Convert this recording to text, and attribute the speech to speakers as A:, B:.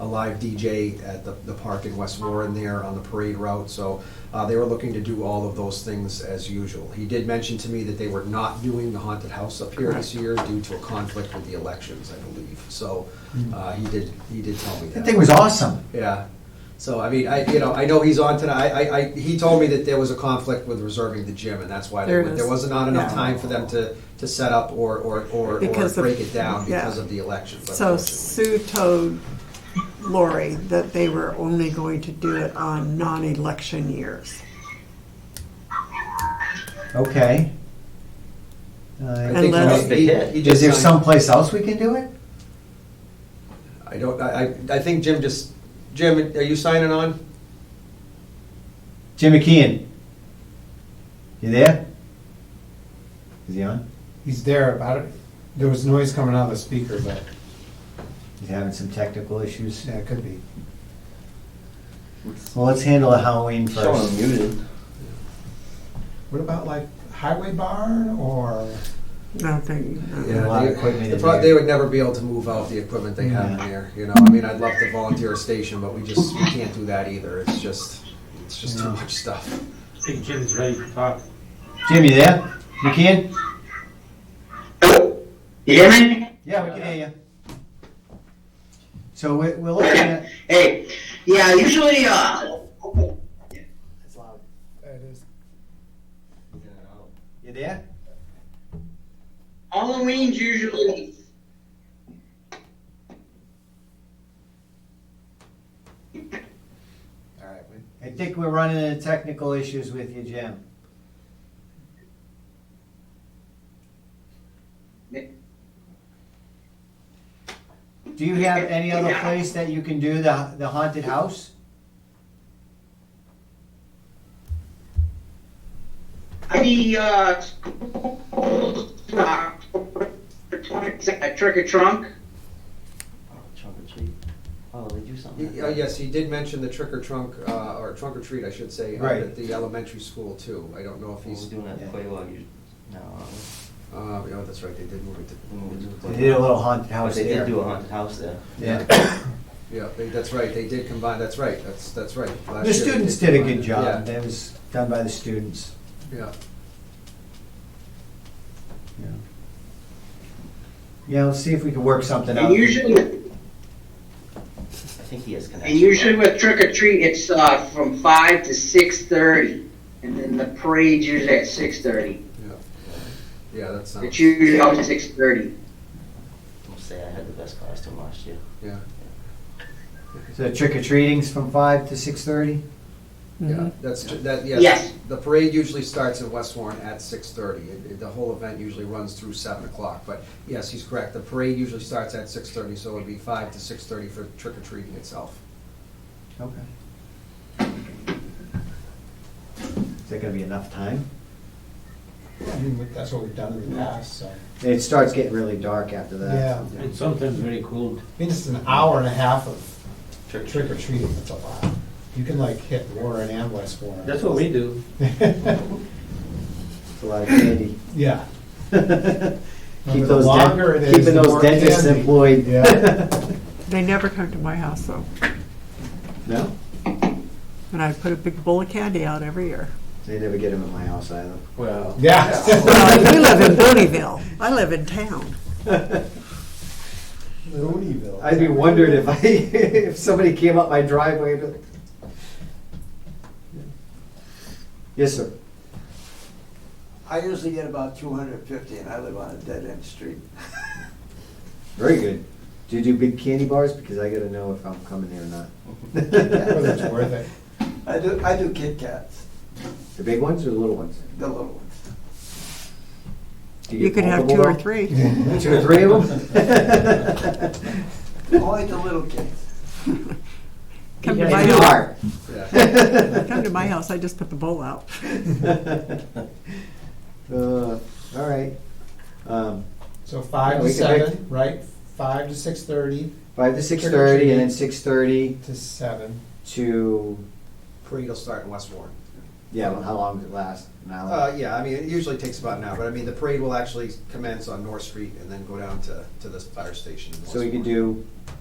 A: a live DJ at the, the park in West Warren there on the parade route. So uh, they were looking to do all of those things as usual. He did mention to me that they were not doing the haunted house up here this year due to a conflict with the elections, I believe. So
B: Hmm.
A: uh, he did, he did tell me that.
C: That thing was awesome.
A: Yeah. So, I mean, I, you know, I know he's on tonight. I, I, he told me that there was a conflict with reserving the gym and that's why
B: There
A: there
B: it
A: was, there
B: is.
A: was not enough
B: Yeah.
A: time for them to, to set up or, or, or, or
B: Because of-
A: break it down
B: yeah.
A: because of the elections.
B: So
A: unfortunately.
B: Sue told Lori that they were only going to do it on non-election years.
C: Okay.
A: I
C: Uh,
A: think
B: Unless-
A: he- he- he
C: Is
A: just
C: there
A: signed-
C: someplace else we can do it?
A: I don't, I, I I think Jim just, Jim, are you signing on?
C: Jim McKeon. You there? Is he on?
D: He's there about it. There was noise coming out of the speaker, but
C: He's having some technical issues.
D: yeah, it could be.
C: Well, let's handle the Halloween
E: Someone
C: first.
E: muted.
D: What about like highway barn or?
B: No, thank
A: Yeah,
C: a lot of
A: they-
C: equipment
A: the
C: in
A: pro-
C: there.
A: They would never be able to move out the equipment they have in
C: Yeah.
A: there, you know, I mean, I'd love to volunteer a station, but we just, we can't do that either, it's just, it's just too
C: Yeah.
A: much stuff.
F: I think Jim's ready to talk.
C: Jim, you there? McKeon?
G: Hello? You hear me?
C: Yeah, we can hear you. So we're, we're looking at,
G: Hey, yeah, usually, uh,
C: you there?
G: Halloween's usually.
C: All right. we- I think we're running into technical issues with you, Jim. Do you have any other place that you can do the, the haunted house?
G: The, uh, uh, trick or trunk.
E: Oh, Trunk or treat. Oh, they do something. like
A: Yeah,
E: that.
A: Yes, he did mention the trick or trunk, uh, or trunk or treat, I should say, up
C: Right.
A: at the elementary school too. I don't know if
E: What
A: he's,
E: we're doing at
C: Yeah.
E: Quaywalk, you, no.
C: Oh.
A: uh, yeah, that's right, they did move it
E: we
A: to.
E: moved it to
C: They did a
E: Quaywalk.
C: little haunted
E: But
C: house
E: They did
C: there.
E: do a haunted house there.
C: Yeah.
A: Yeah, they- that's right, they did combine, that's right, that's, that's right. Last
C: The
A: year they
C: students did a
A: combine
C: good
A: it.
C: job. That was done by the students.
A: Yeah, yeah.
C: Yeah, let's see if we can work something out.
G: And usually,
E: I think he has connections.
G: and usually with trick or treat, it's, uh, from five to six thirty. And then the parade's usually at six thirty.
A: Yeah, that sounds.
G: It's usually always six thirty.
E: I'll say I had the best costume last year.
C: So trick or treating's from five to six thirty?
B: Mm-hmm.
A: Yeah, that's, ju- that, yes.
G: Yes.
A: The parade usually starts in West Warren at six-thirty. The whole event usually runs through seven o'clock, but yes, he's correct. The parade usually starts at six-thirty, so it'd be five to six-thirty for trick or treating itself.
C: Okay. Is that gonna be enough time?
D: I mean, that's what we've done in the past, so.
C: It starts getting really dark after that.
D: Yeah,
F: It's sometimes very cool.
D: I mean, it's an hour and a half of trick or treating. That's a lot. You can like hit Warren and West Warren.
F: That's what we do.
C: It's a lot of candy.
D: Yeah.
C: Keep
D: the
C: those,
D: longer it
C: dent-
D: is,
C: keeping
D: the
C: those
D: more
C: dentists
D: candy.
C: employed.
D: Yeah.
B: They never come to my house though,
C: No,
B: and I put a big bowl of candy out every year.
C: they never get them at my house either.
F: Well.
D: Yeah.
B: Well, you live in Bonneville. I live in town.
D: Looneyville.
C: I'd be wondering if I, if somebody came up my driveway to. Yes, sir.
H: I usually get about two hundred and fifty, and I live on a dead-end street.
C: Very good. Do you do big candy bars? Because I gotta know if I'm coming there or not.
D: Whether it's worth it.
H: I do, I do Kit Kats,
C: The big ones or the little ones?
H: the little ones.
C: Do
B: You
C: get
B: could have two
C: multiple
B: or
C: though?
B: three.
C: Two or three of them?
H: Only the little kids.
B: Come to
C: They
B: my
C: do
B: house.
C: are.
A: Yeah.
B: Come to my house. I just put the bowl out.
C: Uh, All right. Um,
D: So five
C: Yeah,
D: to
C: we can make-
D: seven, right? Five to six thirty
C: Five to six thirty and then six thirty
D: to seven.
C: to,
A: Parade will start in West Warren.
C: yeah, well, how long does it last? An hour?
A: Uh, yeah, I mean, it usually takes about an hour, but I mean, the parade will actually commence on North Street and then go down to, to the fire station. in
C: So
A: West
C: we could
A: Warren.
C: do